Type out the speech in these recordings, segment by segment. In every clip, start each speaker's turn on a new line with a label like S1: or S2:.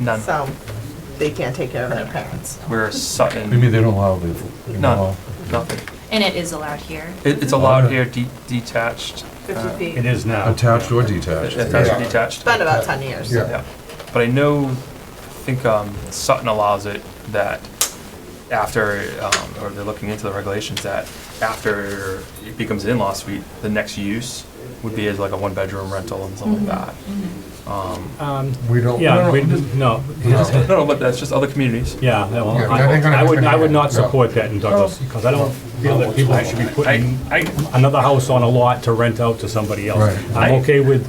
S1: None.
S2: So they can't take care of their parents.
S1: We're Sutton.
S3: What do you mean they don't allow the, they don't allow-
S1: None, nothing.
S4: And it is allowed here.
S1: It, it's allowed here de- detached. uh,
S5: It is now.
S3: attached or
S1: It's
S3: detached?
S1: attached or detached.
S2: It's been about 10 years.
S3: Yeah.
S1: Yeah, but I know, I think um, Sutton allows it that after, um, or they're looking into the regulations that after it becomes an in-law suite, the next use would be as like a one-bedroom rental and something like that. Um,
S5: Um,
S3: We don't,
S5: Yeah,
S3: Oh, no,
S5: we,
S3: no,
S5: no,
S3: no.
S1: No, no, but that's just other communities.
S5: yeah, that one-
S3: Yeah, that ain't gonna
S5: I I would, I would not
S3: happen here.
S5: support that in Douglas, because I don't feel that people should be
S1: I,
S5: putting
S1: I,
S5: another house on a lot to rent out to somebody else.
S3: Right.
S5: I'm
S1: I-
S5: okay with,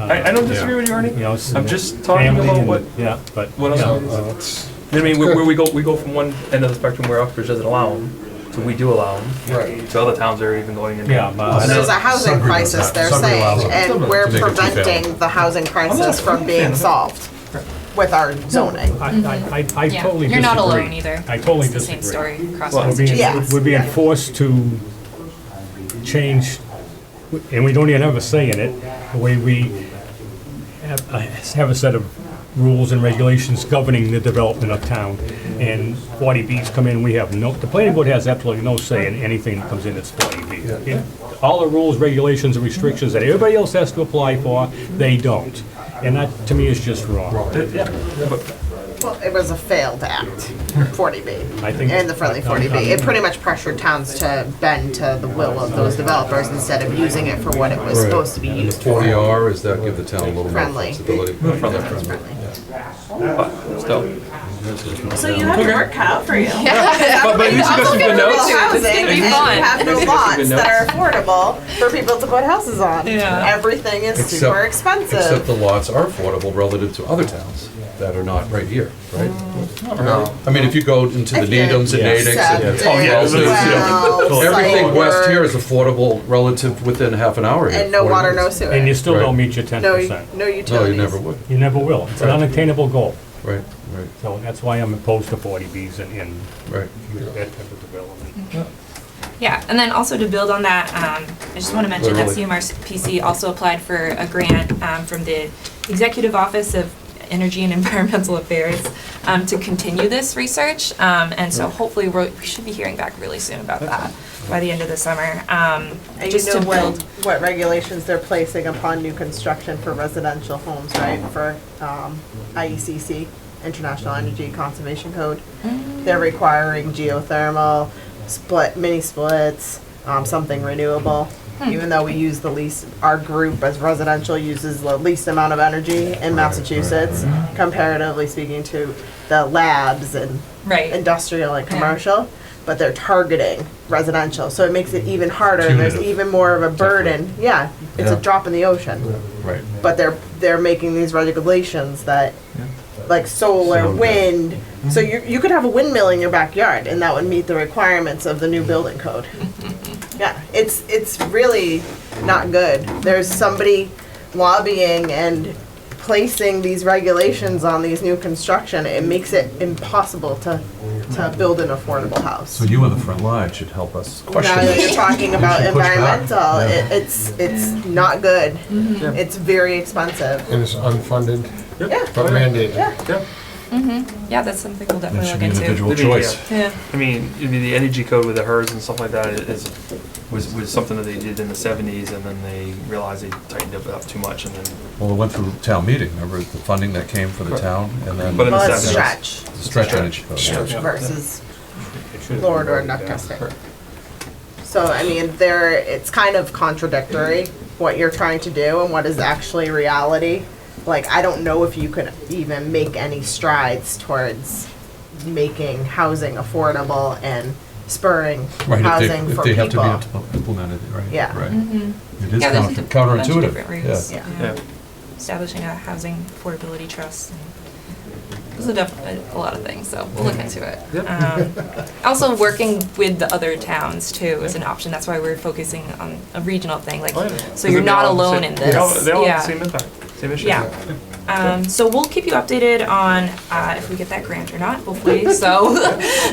S1: I I don't disagree with you,
S5: you
S1: Ernie.
S5: know.
S1: I'm just talking
S5: family
S1: about
S5: and-
S1: what-
S5: Yeah, but.
S1: What
S5: yeah.
S1: else? I mean, where where we go, we go from one end of the spectrum where Uxbridge doesn't allow them, to we do allow them,
S3: Right.
S1: to other towns that are even going in.
S5: Yeah, but-
S2: So There's a
S3: Some
S2: housing
S3: people
S2: crisis,
S3: have-
S2: they're
S3: some people allow
S2: saying,
S3: it.
S2: and
S3: Some
S2: we're
S3: to make it two family.
S2: preventing the housing crisis from being solved with our zoning.
S5: I, I, I- I
S4: Yeah.
S5: totally disagree.
S4: Mm-hmm. You're not alone either.
S5: I
S4: It's
S5: totally
S4: the same
S5: disagree.
S4: story across
S5: We're
S4: Massachusetts.
S5: being,
S2: Yes.
S5: we're being forced to change, and we don't even have a say in it, the way we have, uh, have a set of rules and regulations governing the development of town. And 40Bs come in, we have no, the planning board has absolutely no say in anything that comes in that's 40B. Yeah. All the rules, regulations, and restrictions that everybody else has to apply for, they don't. And that, to me, is just wrong.
S2: Well, it was a failed act, 40B.
S5: I think-
S2: And the friendly 40B. It pretty much pressured towns to bend to the will of those developers instead of using it for what it was
S3: Right.
S2: supposed to be
S3: And the
S2: used for.
S3: forty R, is that give the town a little more
S2: Friendly.
S3: flexibility?
S1: Friendly. But still.
S6: So you have your work cut out for you.
S1: But, but you took us some good notes.
S2: housing
S4: gonna be
S2: and you
S4: fun.
S2: have no
S1: This is gonna be
S2: lots that are
S1: nuts.
S2: affordable for people to put houses on.
S4: Yeah.
S2: Everything is
S3: Except-
S2: super expensive.
S3: Except the lots are affordable relative to other towns that are not right here, right?
S1: Mm.
S3: I mean, if you go into the
S2: I feel
S3: Needhams and
S5: Yeah.
S3: Natick and.
S2: Accepted. Oh, yeah,
S3: Wellesley, you know,
S2: Well,
S3: Everything
S2: Site
S3: west
S2: work.
S3: here is affordable relative within half an hour here.
S2: And no
S3: 40
S2: water, no
S3: minutes.
S2: sewer.
S5: And you still don't
S3: Right.
S5: meet your 10%.
S2: No, no utilities.
S3: No, you never would,
S5: You never will. It's an
S3: Right.
S5: unattainable goal.
S3: right, right,
S5: So that's why I'm opposed to 40Bs and, and
S3: right.
S5: that type of development.
S4: Yeah, and then also to build on that, um, I just want to mention that
S3: Literally.
S4: CMRPC also applied for a grant, um, from the Executive Office of Energy and Environmental Affairs, um, to continue this research, um, and so hopefully we're, we should be hearing back really soon about that by the end of the summer, um,
S2: And you
S4: just to
S2: know what,
S4: build.
S2: what regulations they're placing upon new construction for residential homes, right? For um, IECC, International Energy Conservation Code.
S4: Mm.
S2: They're requiring geothermal, split, mini splits, um, something renewable.
S4: Hmm.
S2: Even though we use the least, our group as residential uses the least amount of energy in Massachusetts, comparatively speaking to the labs and
S4: Right,
S2: industrial and commercial, but they're targeting residential, so it makes it even harder, and there's
S3: Punitive.
S2: even more of a burden, yeah, it's a
S3: Yeah.
S2: drop in the ocean.
S3: Right.
S2: But they're, they're making these regulations that,
S1: Yeah.
S2: like solar,
S3: Solar.
S2: wind, so you, you could have a windmill in your backyard, and that would meet the requirements of the new building code. Yeah, it's, it's really not good, there's somebody lobbying and placing these regulations on these new construction, it makes it impossible to, to build an affordable house.
S3: So you on the front line should help us question
S2: Now that
S3: this.
S2: you're talking about
S3: should push back.
S2: environmental,
S3: Yeah.
S2: it, it's, it's not good. It's very expensive.
S7: And it's unfunded,
S2: Yeah,
S7: but mandated.
S1: Yeah.
S4: Mm-hmm. yeah, that's something we'll
S3: That
S4: definitely
S3: should
S4: look
S3: be an
S4: into.
S3: individual
S1: Maybe, yeah.
S3: choice.
S4: Yeah,
S1: I mean, I mean, the energy code with the HERS and stuff like that is, was, was something that they did in the seventies and then they realized they tightened it up too much and then,
S3: Well, it went through town meeting, remember the funding that came for the town and then.
S1: But in the
S2: well, it's
S1: seventies.
S2: stretch
S3: The Stretch energy code.
S2: versus
S5: It should-
S2: Lord or duck testing. So, I mean, there, it's kind of contradictory, what you're trying to do and what is actually reality. Like, I don't know if you could even make any strides towards making housing affordable and spurring
S3: Right, if
S2: housing
S3: they, if
S2: for
S3: they have to be
S2: people.
S3: impl- implemented, right?
S2: Yeah. Mm-hmm.
S3: Right. It is
S4: Yeah, there's a
S3: counter-
S4: di- bunch of different
S3: counterintuitive,
S4: routes.
S3: yeah.
S1: yeah.
S4: establishing a housing affordability trust. and Those are definitely a lot of things, so we'll look into it. Um, Also, working with the other towns too is an option. That's why we're focusing on a regional thing, like,
S1: Oh, yeah.
S4: so you're
S1: They all
S4: not
S1: have the
S4: alone
S1: same-
S4: in
S1: They all,
S4: this.
S1: they all have the
S4: Yeah.
S1: same impact, same issue.
S4: Yeah. Um, so we'll keep you updated on, uh, if we get that grant or not, hopefully, so,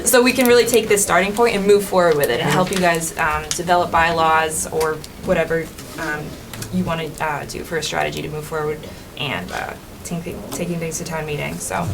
S4: so we can really take this starting point and move forward with it and help you guys, um, develop bylaws or whatever, um, you wanna, uh, do for a strategy to move forward and, uh, taking, taking things to town meeting, so.